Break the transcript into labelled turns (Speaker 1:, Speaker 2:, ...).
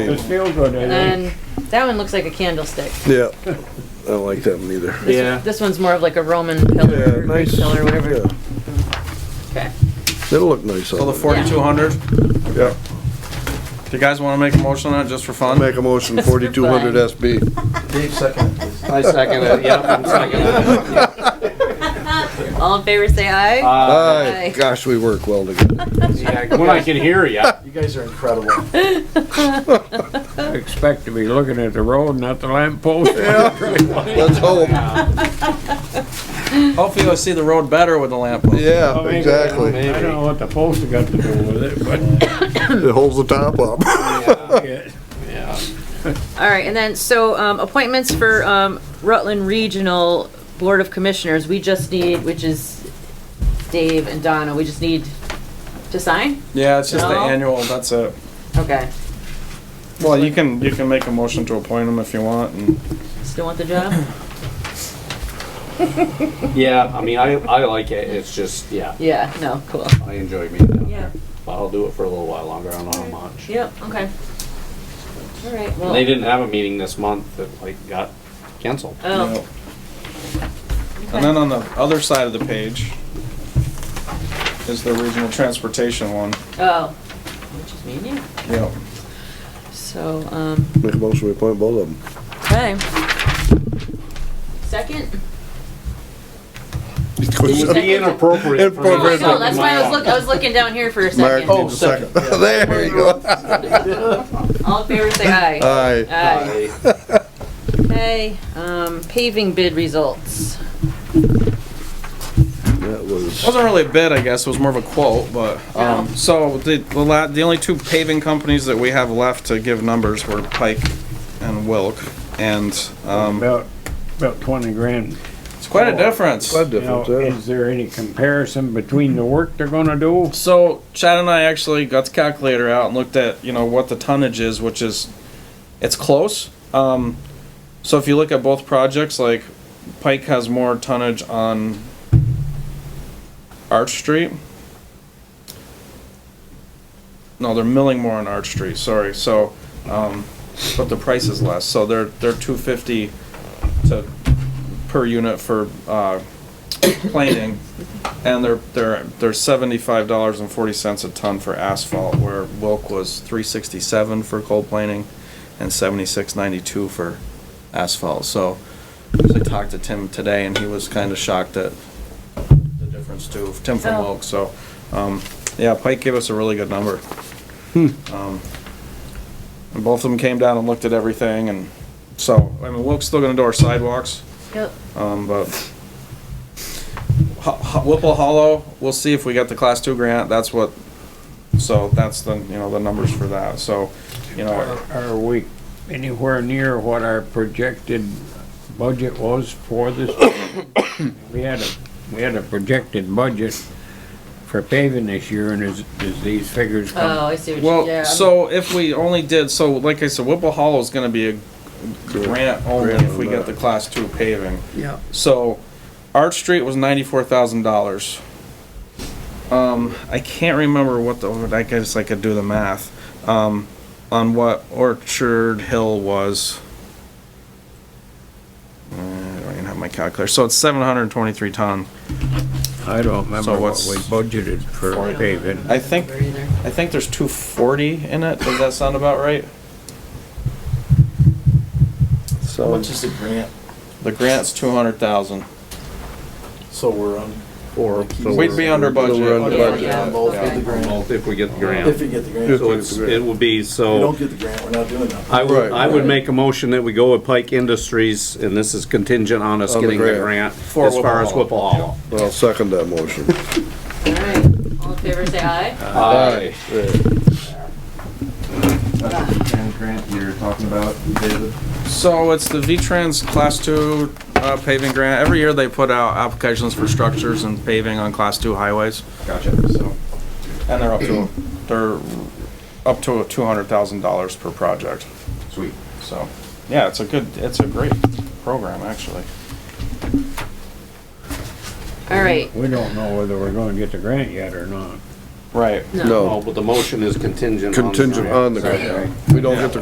Speaker 1: Those feel good, I think.
Speaker 2: And that one looks like a candlestick.
Speaker 3: Yeah, I don't like them either.
Speaker 2: This-
Speaker 4: Yeah.
Speaker 2: This one's more of like a Roman pillar,
Speaker 3: Yeah,
Speaker 2: or Greek
Speaker 3: nice.
Speaker 2: pillar, whatever.
Speaker 3: yeah.
Speaker 2: Okay.
Speaker 3: That'll look nice
Speaker 4: So
Speaker 3: on
Speaker 4: the
Speaker 3: it.
Speaker 4: forty-two hundred,
Speaker 3: Yeah,
Speaker 4: do you guys wanna make a motion on it just for
Speaker 3: I'll
Speaker 4: fun?
Speaker 3: make a motion, 4200 SB.
Speaker 5: Dave second, please.
Speaker 4: I second it, yep, I'm second
Speaker 2: All in favor, say aye. Aye.
Speaker 3: Aye, gosh, we work well together.
Speaker 4: it. When I can hear ya.
Speaker 5: You guys are incredible.
Speaker 1: I expect to be looking at the road, not the lamp post.
Speaker 3: Let's hope,
Speaker 4: Hopefully you'll see the road better with the lamp. on.
Speaker 3: yeah,
Speaker 6: Oh,
Speaker 3: exactly.
Speaker 1: I don't know what the post has got to do with it, but
Speaker 3: It holds the top up.
Speaker 1: yeah,
Speaker 2: All right, and then, so, um, appointments for, um, Rutland Regional Board of Commissioners, we just need, which is Dave and Donna, we just need to sign?
Speaker 4: Yeah, it's just the
Speaker 2: No.
Speaker 4: annual, that's it.
Speaker 2: Okay.
Speaker 4: Well, you can, you can make a motion to appoint them if you want and.
Speaker 2: Still want the job?
Speaker 6: Yeah, I mean, I, I like it, it's just, yeah,
Speaker 2: Yeah, no, cool.
Speaker 6: I enjoy being down
Speaker 2: Yeah.
Speaker 6: there. But I'll do it for a little while longer, I don't know how much.
Speaker 2: Yep, okay. All right,
Speaker 6: And they
Speaker 2: well,
Speaker 6: didn't have a meeting this month that like got canceled.
Speaker 2: oh.
Speaker 4: And then on the other side of the page is the regional transportation one.
Speaker 2: Oh, which is me and you.
Speaker 4: Yep.
Speaker 2: So, um,
Speaker 3: Make a motion, we appoint both of them.
Speaker 2: okay. Second?
Speaker 6: It'd be inappropriate for me to
Speaker 3: Inappropriate.
Speaker 6: second
Speaker 2: No, Oh that's why I was looking, I was looking down here for a
Speaker 3: Mark
Speaker 4: Oh,
Speaker 2: second.
Speaker 3: needs a second. There you go.
Speaker 2: All in favor, say
Speaker 4: Uh,
Speaker 2: aye.
Speaker 3: Aye,
Speaker 2: Aye.
Speaker 6: my-
Speaker 2: Okay, um, paving bid results.
Speaker 3: that was,
Speaker 4: Wasn't really a bid, I guess, it was more of a quote, but, um,
Speaker 2: Yeah.
Speaker 4: so the, the la, the only two paving companies that we have left to give numbers were Pike and Wilk, and, um,
Speaker 1: about, about twenty grand.
Speaker 4: it's quite a difference.
Speaker 3: quite a
Speaker 1: Now,
Speaker 3: difference, yeah.
Speaker 1: is there any comparison between the work they're gonna do?
Speaker 4: So Chad and I actually got the calculator out and looked at, you know, what the tonnage is, which is, it's close. Um, so if you look at both projects, like Pike has more tonnage on Arch Street. No, they're milling more on Arch Street, sorry, so, um, but the price is less, so they're, they're two fifty to, per unit for, uh, planing. And they're, they're, they're seventy-five dollars and forty cents a ton for asphalt, where Wilk was three sixty-seven for coal planing and seventy-six ninety-two for asphalt, so. I talked to Tim today and he was kinda shocked at the difference too, Tim from
Speaker 2: Oh.
Speaker 4: Wilk, so, um, yeah, Pike gave us a really good number. Um, And both of them came down and looked at everything and, so, I mean, Wilk's still gonna do our sidewalks.
Speaker 2: Yep.
Speaker 4: Um, but Ho- Ho- Whipple Hollow, we'll see if we get the class two grant. That's what, so that's the, you know, the numbers for that. So, you know,
Speaker 1: Are are we anywhere near what our projected budget was for this? We had a, we had a projected budget for paving this year, and is, is these figures
Speaker 2: Oh,
Speaker 1: come?
Speaker 2: I see what you, yeah.
Speaker 4: well,
Speaker 2: I'm-
Speaker 4: so if we only did, so like I said, Whipple Hollow is gonna be a grant only
Speaker 3: Grant
Speaker 4: if we
Speaker 3: on
Speaker 4: get
Speaker 3: that.
Speaker 4: the class two paving.
Speaker 1: Yeah.
Speaker 4: So Arch Street was ninety-four thousand dollars. Um, I can't remember what the, I guess I could do the math, um, on what Orchard Hill was. Uh, I don't even have my calculator. So it's seven hundred and twenty-three ton.
Speaker 1: I don't remember
Speaker 4: So
Speaker 1: what
Speaker 4: what's-
Speaker 1: we budgeted for paving.
Speaker 4: I think,
Speaker 2: Over either.
Speaker 4: I think there's two forty in it. Does that sound about right?
Speaker 5: How
Speaker 3: So,
Speaker 5: much is the grant?
Speaker 4: The grant's two hundred thousand.
Speaker 5: So we're on.
Speaker 3: or.
Speaker 4: We'd be under
Speaker 3: So we're
Speaker 4: budget.
Speaker 3: under
Speaker 2: Yeah,
Speaker 3: budget.
Speaker 2: yeah.
Speaker 5: On both with the grant.
Speaker 6: If we get the
Speaker 5: If
Speaker 6: grant.
Speaker 5: you get the grant.
Speaker 6: So it's, it will be,
Speaker 5: If you
Speaker 6: so
Speaker 5: don't get the grant, we're not doing that.
Speaker 6: I would,
Speaker 3: Right.
Speaker 6: I would make a motion that we go with Pike Industries and this is contingent on us
Speaker 3: On the
Speaker 6: getting the
Speaker 3: grant.
Speaker 6: grant as
Speaker 4: For Whipple
Speaker 6: far as
Speaker 4: Hollow.
Speaker 6: Whipple Hollow.
Speaker 3: I'll second that motion.
Speaker 2: All right, all in favor, say
Speaker 4: Uh,
Speaker 2: aye.
Speaker 6: Aye.
Speaker 5: grant you're talking about, David?
Speaker 4: So it's the V-Trans Class Two uh, paving grant. Every year they put out applications for structures and paving on Class Two highways. Gotcha. So, and they're up to, they're up to two hundred thousand dollars per project.
Speaker 5: Sweet.
Speaker 4: So, yeah, it's a good, it's a great program, actually.
Speaker 2: All right,
Speaker 1: We don't know whether we're gonna get the grant yet or not.
Speaker 4: Right.
Speaker 2: no.
Speaker 3: No,
Speaker 6: Oh, but the motion is contingent on the
Speaker 3: contingent
Speaker 6: grant.
Speaker 3: on the grant. We don't get the